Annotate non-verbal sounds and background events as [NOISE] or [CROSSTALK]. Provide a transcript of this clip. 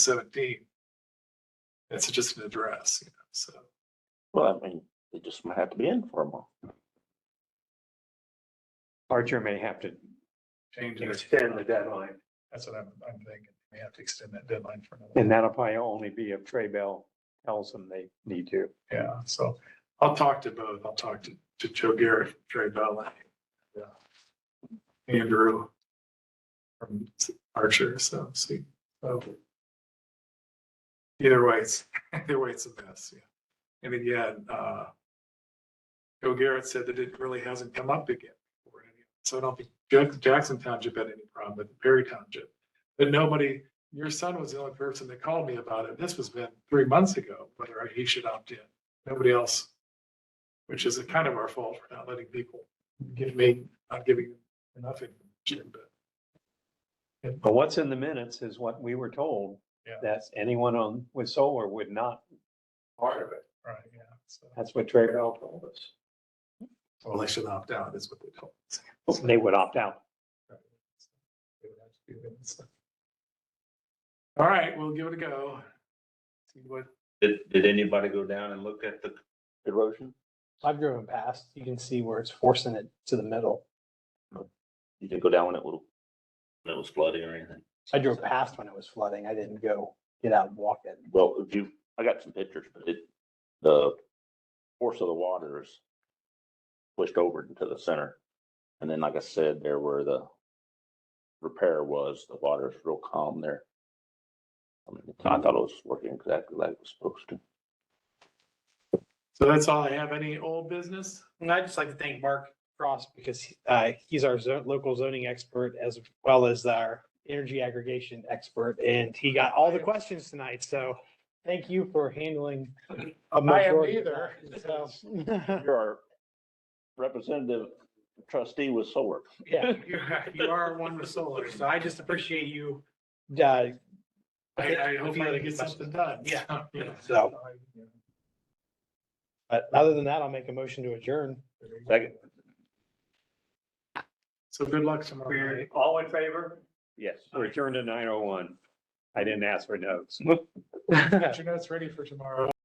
seventeen. It's just an address, you know, so. Well, I mean, they just might have to be in for a month. Archer may have to, Change it. extend the deadline. That's what I'm, I'm thinking. We have to extend that deadline for another. and that'll probably only be if Trey Bell tells them they need to. Yeah, so I'll talk to both. I'll talk to, to Joe Garrett, Trey Bell, and uh, Andrew from Archer, so see. so. Either way, it's, [LAUGHS] either way, it's a mess, yeah. I mean, yeah, uh, Joe Garrett said that it really hasn't come up again. before. So I don't think Jack- Jackson Township had any problem, but Perry Township. But nobody, your son was the only person that called me about it. This was been three months ago, whether he should opt in. Nobody else. Which is kind of our fault for not letting people give me, not giving them enough information, but But what's in the minutes is what we were told, Yeah. that anyone on with solar would not, part of it. Right, yeah. So that's what Trey Bell told us. well, they should opt out is what they told. us. They would opt out. They would have to do that, so. All right, we'll give it a go. See what, Did, did anybody go down and look at the erosion? I've driven past, you can see where it's forcing it to the middle. You didn't go down when it was, when it was flooding or anything? I drove past when it was flooding. I didn't go get out and walk it. Well, if you, I got some pictures, but it, the force of the water is pushed over into the center. And then, like I said, there where the repair was, the water is real calm there. I mean, I thought it was working exactly like it was supposed to. so that's all I have. Any old business? And I'd just like to thank Mark Cross because uh, he's our zo- local zoning expert as well as our energy aggregation expert. And he got all the questions tonight. So thank you for handling. a majority of [LAUGHS] that. [LAUGHS] So, You're our representative trustee with solar. Yeah, [LAUGHS] You you are one with solar, so I just appreciate you uh, I, I hope I get something done. Yeah. So. But other than that, I'll make a motion to adjourn. [LAUGHS] Second. So good luck tomorrow. We're night. all in favor? Yes. We're adjourned to nine oh one. I didn't ask for notes. Get your notes ready for tomorrow.